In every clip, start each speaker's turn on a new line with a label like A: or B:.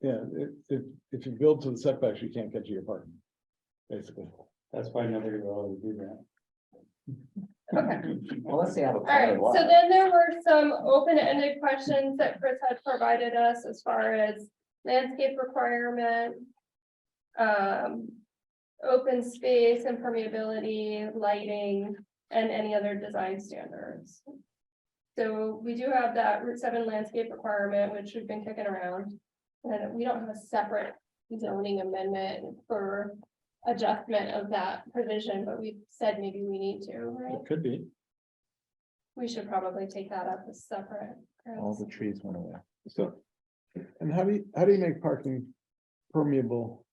A: Yeah, if, if, if you build to the setbacks, you can't get to your parking, basically.
B: That's why nobody will always do that.
C: Well, let's see how. the
D: Alright,
C: plan
D: so
C: lies.
D: then there were some open-ended questions that Chris had provided us as far as landscape requirement. Um, open space and permeability, lighting, and any other design standards. So we do have that Route seven landscape requirement, which we've been kicking around. And we don't have a separate zoning amendment for adjustment of that provision, but we said maybe we need to, right?
A: It could be.
D: We should probably take that up as separate.
C: All
D: Chris.
C: the trees went away.
A: So, and how do you, how do you make parking permeable?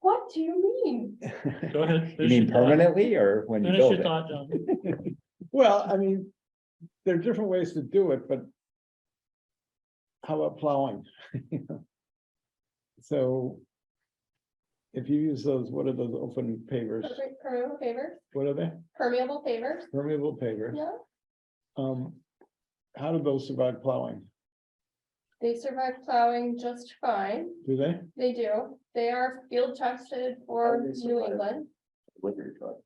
D: What do you mean?
E: Go ahead.
C: You mean
E: finish your thought.
C: permanently or when you
E: Finish
C: build
E: your
C: it?
E: thought, John.
A: Well, I mean, there are different ways to do it, but. How about plowing? You know? So. If you use those, what are those open pavers?
D: Perfect Permeable paver,
A: What are they?
D: permeable paver,
A: Permeable pavers.
D: yeah,
A: Um. How do those survive plowing?
D: they survive plowing just fine.
A: Do they?
D: They do. They are field tested for
C: How do they
D: New
C: survive?
D: England.
C: Liquor truck.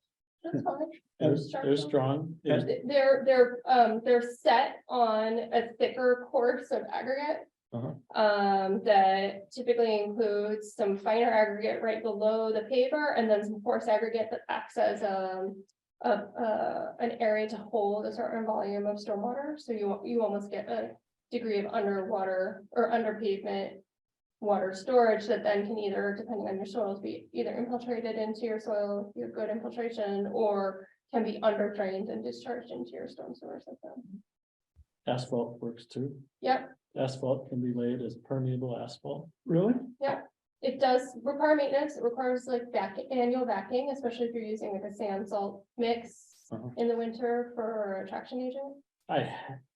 D: That's fine.
A: And-
B: They're- They're strong. They're-
D: They- They're, they're, um, they're set on a thicker course of aggregate.
A: Uh-huh.
D: Um, that typically includes some finer aggregate right below the paver and then some coarse aggregate that acts as, um. A, uh, an area to hold a certain volume of stormwater, so you, you almost get a degree of underwater or under pavement. Water storage that then can either, depending on your soils, be either infiltrated into your soil, your good infiltration, or can be under drained and discharged into your storm sewer system.
E: Asphalt works too.
D: Yep.
E: Asphalt can be laid as permeable asphalt.
A: Really?
D: It does require maintenance, it requires like back, annual backing, especially if you're using like a sand salt mix
A: Uh-huh.
D: in the winter for a traction agent.
E: I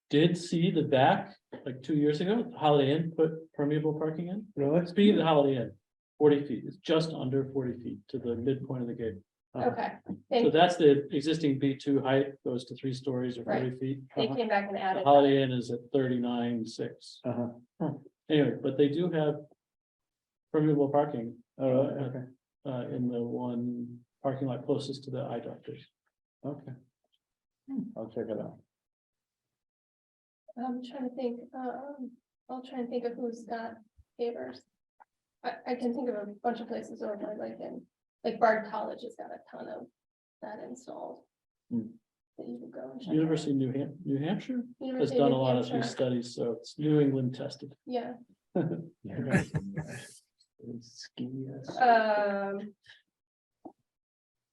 E: did see the back, like two years ago, Holiday Inn put permeable parking in.
A: Really?
E: Speaking of the Holiday Inn, forty feet, it's just under forty feet to the midpoint of the gate. Uh-huh.
D: Okay,
E: So
D: thank,
E: that's the existing B two height, goes to three stories or forty feet.
D: they
E: Uh-huh.
D: came back and
E: The
D: added, that.
E: Holiday Inn is at thirty-nine, six.
A: Uh
B: Uh-huh.
A: huh.
E: Anyway, but they do have permeable parking
B: Oh,
A: All right, okay,
E: uh, in the one parking lot closest to the eye doctors.
A: okay. I'll check it out.
D: I'm trying to think, um, I'll try and think of who's got favors. I, I can think of a bunch of places over like in, like Bard College has got a ton of that installed.
E: Hmm.
D: That you can go and check out.
E: University of New Ham- New Hampshire has
D: University of
E: done a
D: New
E: lot of
D: Hampshire.
E: these studies, so it's New England tested.
D: Yeah,
C: Skiers.
D: um.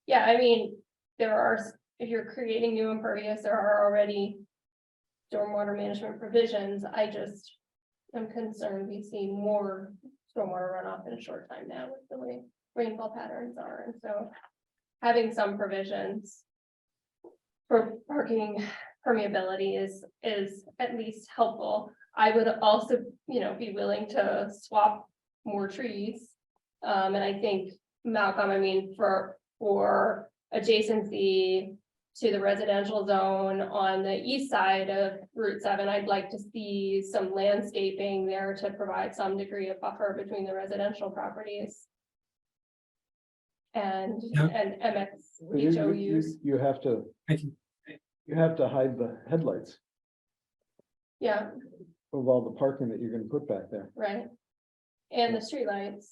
D: Yeah, I mean, there are, s- if you're creating new impervious, there are already. Stormwater management provisions, I just am concerned we see more stormwater runoff in a short time now with the way rainfall patterns are, and so. Having some provisions. For parking permeability is, is at least helpful. I would also, you know, be willing to swap more trees. Um, and I think Malcolm, I mean, for, for adjacency to the residential zone on the east side of Route seven, I'd like to see some landscaping there to provide some degree of buffer between the residential properties. And,
F: Yeah.
D: and
A: You- you-
D: MX
A: you-
D: HOUs,
A: You have to,
F: I can-
A: you have to hide the headlights
D: yeah,
A: of all the parking that you're gonna put back there,
D: right? And the streetlights,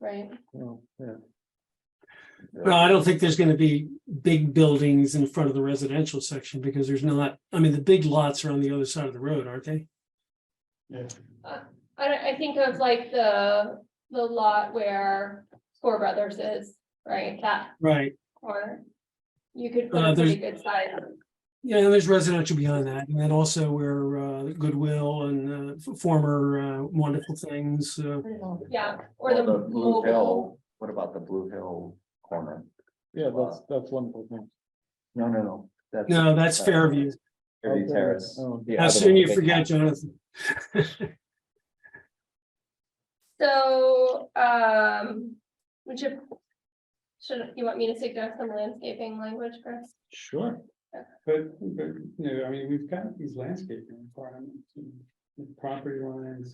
D: right?
A: you know, yeah.
F: Well, I don't think there's gonna be big buildings in front of the residential section because there's not, I mean, the big lots are on the other side of the road, aren't they?
D: I, don't- I think of like the, the lot where Four Brothers is, right, that
F: Right.
D: corner. You could put
F: Uh,
D: a pretty
F: there's-
D: good size,
F: Yeah, and there's residential beyond that. And then also where uh, Goodwill and uh, f- former uh, wonderful things, uh,
D: yeah, or the
C: Well, Blue
D: mobile.
C: Hill, what about the Blue Hill corner?
A: Yeah, that's, that's one thing.
C: No, no, no. that's-
F: no, that's Fairview.
C: Fairview Terrace.
A: Oh.
C: The
F: How
C: other
F: soon
C: one,
F: you
C: the big
F: forget,
C: house.
F: Jonathan.
D: So, um, would you, should, you want me to suggest some landscaping language, Chris?
B: Sure. But, but, you know, I mean, we've got these landscaping requirements, and property lines,